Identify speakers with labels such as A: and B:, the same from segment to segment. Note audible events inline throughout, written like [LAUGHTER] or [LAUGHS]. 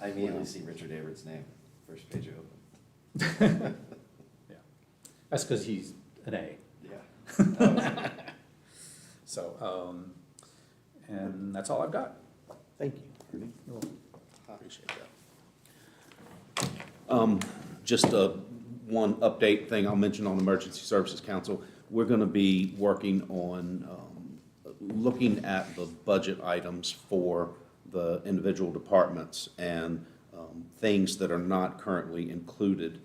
A: I immediately
B: Wow.
A: see Richard Averett's name, first page I open.
B: Yeah, that's because he's an A.
A: Yeah.
B: So, um, and that's all I've got.
C: Thank you, Ernie.
B: You're welcome.
C: Appreciate that.
D: Um, Just uh, one update thing I'll mention on Emergency Services Council. We're going to be working on um, looking at the budget items for the individual departments and um, things that are not currently included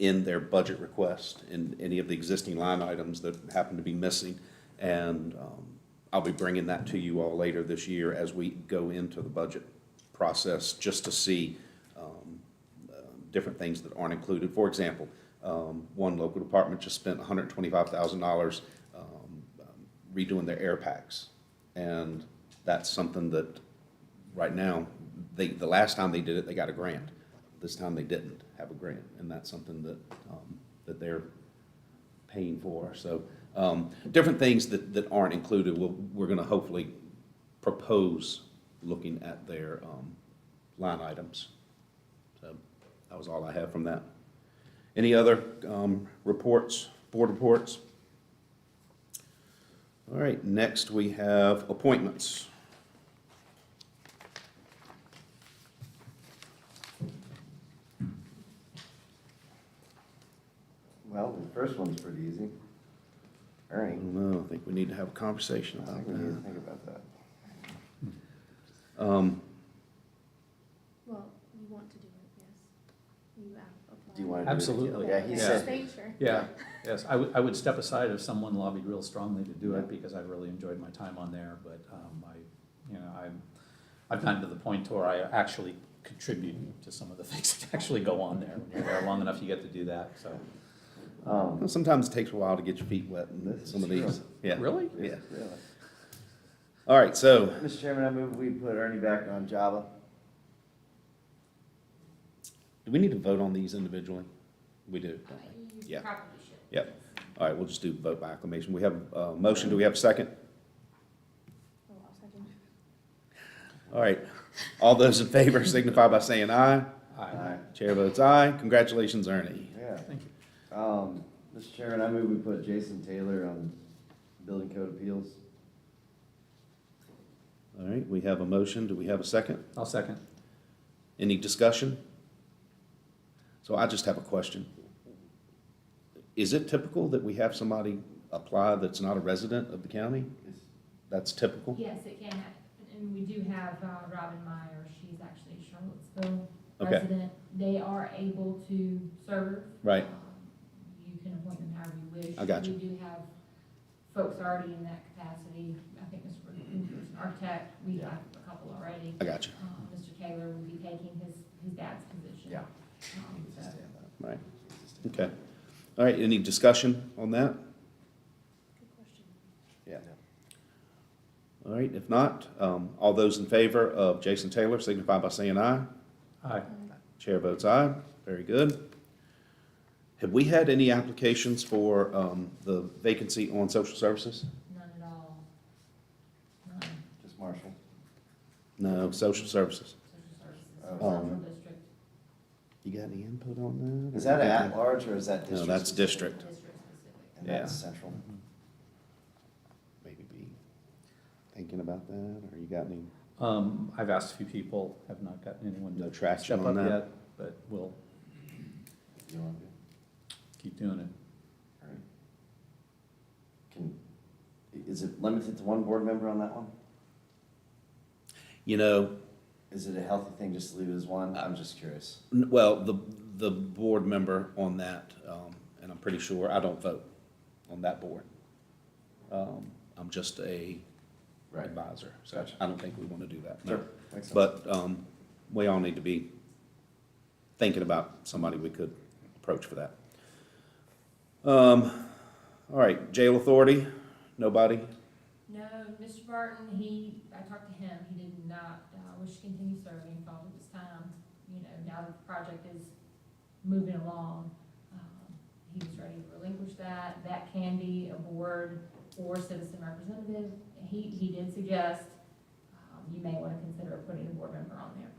D: in their budget request in any of the existing line items that happen to be missing. And um, I'll be bringing that to you all later this year as we go into the budget process, just to see um, um, different things that aren't included. For example, um, one local department just spent $125,000 um, um, redoing their air packs. And that's something that, right now, they, the last time they did it, they got a grant. This time they didn't have a grant, and that's something that, um, that they're paying for. So, um, different things that, that aren't included, we'll, we're gonna hopefully propose looking at their, um, line items. So, that was all I have from that. Any other, um, reports, board reports? All right, next we have appointments.
A: Well, the first one's pretty easy.
D: I
A: Ernie,
D: don't know, I think we need to have a conversation
A: I think we
D: about
A: need to
D: that.
A: think about that.
D: Um,
E: Well, you want to do it, yes. You have applied.
A: Do you want to do it?
B: Absolutely.
A: Yeah, he
E: Yes,
A: said,
E: thank you.
B: Yeah, yes, I would, I would step aside if someone lobbied real strongly to do it, because I really enjoyed my time on there, but, um, I, you know, I'm, I've gotten to the point where I actually contribute to some of the [LAUGHS] things that actually go on there. When you're there long enough, you get to do that, so.
A: um,
D: Well, Sometimes it takes a while to get your feet wet in
A: This is
D: some of
A: true.
D: these. Yeah.
B: Really?
D: Yeah.
A: really.
D: All right, so,
A: Mr. Chairman, I move we put Ernie back on Java.
D: do we need to vote on these individually? We do, don't we? Yeah.
E: You probably should.
D: Yep. All right, we'll just do vote by acclamation. We have a motion, do we have a second?
E: Oh, I'll second.
D: All right, all those in favor signify by saying aye.
B: I,
D: Chair votes aye. Congratulations, Ernie.
A: Yeah.
B: thank you.
A: Um, Mr. Chairman, I move we put Jason Taylor on Building Code Appeals.
D: All right, we have a motion, do we have a second?
B: I'll second.
D: Any discussion? So I just have a question. Is it typical that we have somebody apply that's not a resident of the county? That's typical?
F: Yes, it can, happen. and we do have uh, Robin Meyer, she's actually a Charlottesville
D: Okay.
F: resident. They are able to serve.
D: Right.
F: Um, You can appoint them however you wish.
D: I got you.
F: We do have folks already in that capacity, I think Mr. Rutherford's an architect, we have a couple already.
D: I got you.
F: Um, Mr. Taylor will be taking his, his dad's position.
A: Yeah.
F: Um, so-
D: Right, okay. All right, any discussion on that?
E: Good question.
D: All right, if not, um, all those in favor of Jason Taylor signify by saying aye.
B: Aye.
D: Chair votes aye. Very good. Have we had any applications for um, the vacancy on social services?
F: None at all. None,
A: Just Marshall.
D: No, social services.
F: social
A: Oh.
F: services,
D: Um,
F: central district.
D: You got any input on that?
A: Is that at large or is that district?
D: No, that's
A: specific?
D: district.
F: District specific.
A: And that's central.
D: Maybe be thinking about that, or you got any?
B: Um, I've asked a few people, have not gotten anyone
D: No
B: to
D: traction
B: step
D: on
B: up
D: that.
B: yet, but we'll
A: You want to do?
B: keep doing it.
A: All right. Can, i- is it limited to one board member on that one?
D: You know,
A: Is it a healthy thing just to leave it as one? I'm just curious.
D: n- well, the, the board member on that, um, and I'm pretty sure I don't vote on that board. Um, I'm just a advisor, so
A: Gotcha.
D: I don't think we want to do that. no.
A: Sure, makes sense.
D: But um, we all need to be thinking about somebody we could approach for that. Um, All right, jail authority, nobody?
F: No, Mr. Barton, he, I talked to him, he did not, uh, wish to continue serving, felt it was time, you know, now that the project is moving along, um, he was ready to relinquish that, that can be a board or citizen representative. He, he did suggest, um, you may wanna consider putting a board member on there.